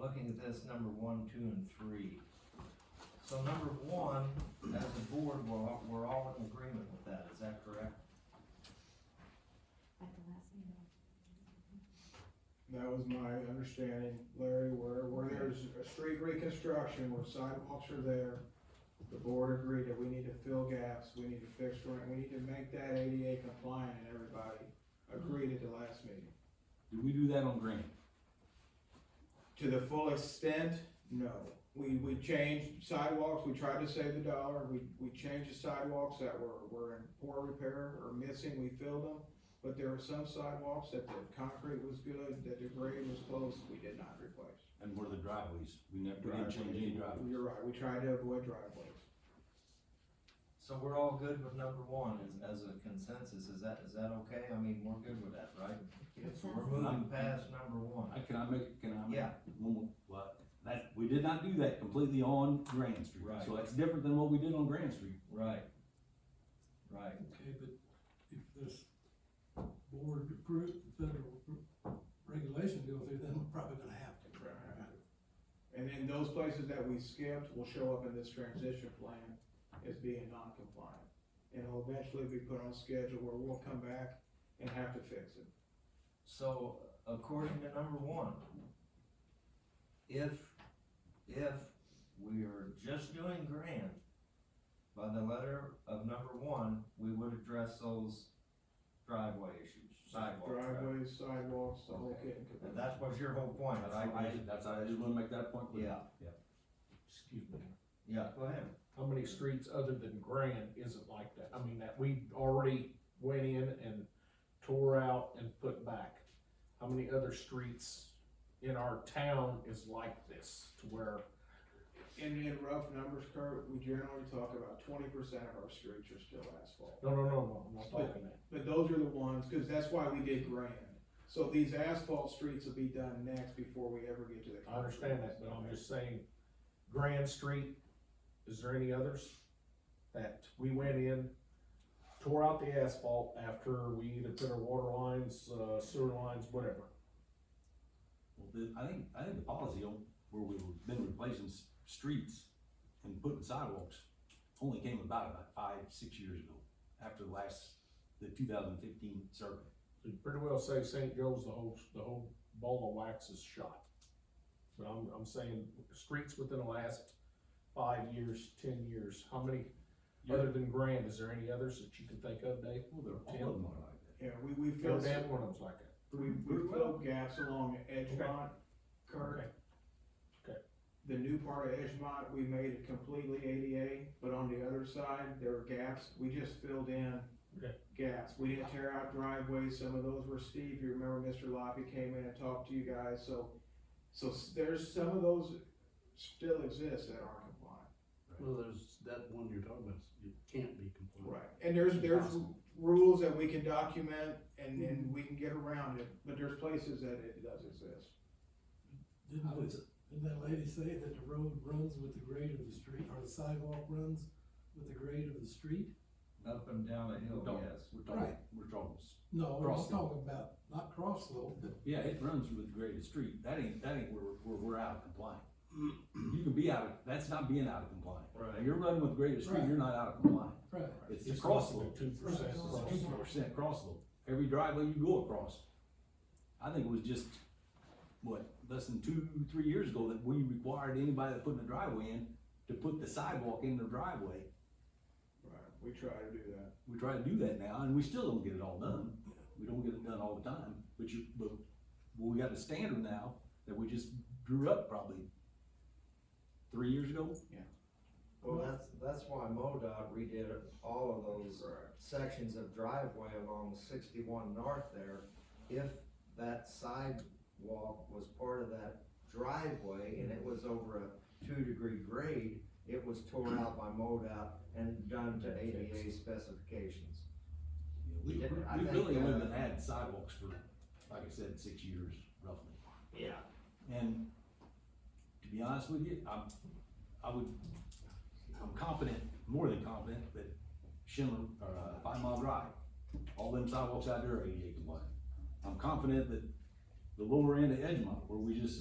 looking at this, number one, two, and three. So number one, as a board, we're all, we're all in agreement with that, is that correct? At the last meeting. That was my understanding, Larry, where, where there's a street reconstruction, where sidewalks are there, the board agreed that we need to fill gaps, we need to fix, joint- we need to make that ADA compliant, and everybody agreed at the last meeting. Did we do that on Grant? To the full extent, no. We, we changed sidewalks, we tried to save the dollar, we, we changed the sidewalks that were, were in poor repair or missing, we filled them. But there were some sidewalks that the concrete was good, that the grade was close, we did not replace. And what are the driveways? We never, we didn't change any driveways. You're right, we try to avoid driveways. So we're all good with number one, as, as a consensus, is that, is that okay? I mean, we're good with that, right? So we're moving past number one. I, can I make, can I? make Yeah. One more, what? That, we did not do that completely on Grand Street. Right. So that's different than what we did on Grand Street. Right. Right. Okay, but if this board approved federal regulation goes through, then we're probably gonna have to. And then those places that we skipped will show up in this transition plan as being non-compliant. And will eventually be put on schedule where we'll come back and have to fix it. So according to number one, if, if we are just doing grant, by the letter of number one, we would address those driveway issues, sidewalk. traffic. Driveways, sidewalks, the whole kit and And caboodle. that was your whole point, That's, I, all I, I, ju- that's, all I just wanna make that point. clear. yeah, Excuse me. yeah, go ahead. How many streets other than Grand isn't like that? I mean, that we already went in and tore out and put back. How many other streets in our town is like this to where, In, in rough numbers, Kurt, we generally talk about twenty percent of our streets are still asphalt. no, no, no, no, I'm not talking that. But those are the ones, cause that's why we did grand. So these asphalt streets will be done next before we ever get to the. I understand that, but I'm just saying, Grand Street, is there any others? That we went in, tore out the asphalt after we either put our water lines, uh, sewer lines, whatever. Well, the, I think, I think the policy on, where we've been replacing s- streets and putting sidewalks only came about about five, six years ago, after the last, the two thousand fifteen survey. You pretty well say St. Joe's, the whole, the whole ball of wax is shot. But I'm, I'm saying, streets within the last five years, ten years, how many, other than Grand, is there any others that you can think of, Dave? Well, they're, all of them are like that. Yeah, we, we Every filled. damn one of them's like that. We, we filled gaps along Edgemont, Kurt. Okay. The new part of Edgemont, we made it completely ADA, but on the other side, there were gaps, we just filled in Okay. gaps. We didn't tear out driveways, some of those were steep, you remember Mr. Loppy came in and talked to you guys, so, so s- there's, some of those still exist that aren't compliant. Well, there's that one you're talking about, you can't be compliant. Right. And there's, there's Impossible. rules that we can document and, and we can get around it, but there's places that it does exist. Didn't, the- didn't that lady say that the road runs with the grade of the street, or the sidewalk runs with the grade of the street? Up and down a hill, Don't. yes. We're talking, we're talking, s- No, I'm Cross just slope. talking about, not cross slope, but yeah, it runs with the graded street, that ain't, that ain't where, where we're out of compliance. You can be out of, that's not being out of compliance. Right. When you're running with graded street, you're not out of compliance. right. It's the cross slope. Two percent. Right. It's a two percent cross slope, every driveway you go across. I think it was just, what, less than two, three years ago that we required anybody that put in a driveway in to put the sidewalk in their driveway. Right, we try to do that. We try to do that now, and we still don't get it all done, we don't get it done all the time, but you, but, well, we got a standard now that we just drew up probably three years ago. Well, that's, that's why MoDOT redid all of those sections of driveway along sixty-one north there. If that sidewalk was part of that driveway and it was over a two-degree grade, it was torn out by MoDOT and done to ADA specifications. We, Yeah, I we think, really uh, haven't had sidewalks for, like I said, six years roughly. Yeah. And to be honest with you, I'm, I would, I'm confident, more than confident, that Schindler, or uh, Five Mile Drive, all them sidewalks out there are ADA compliant. I'm confident that the lower end of Edgemont, where we just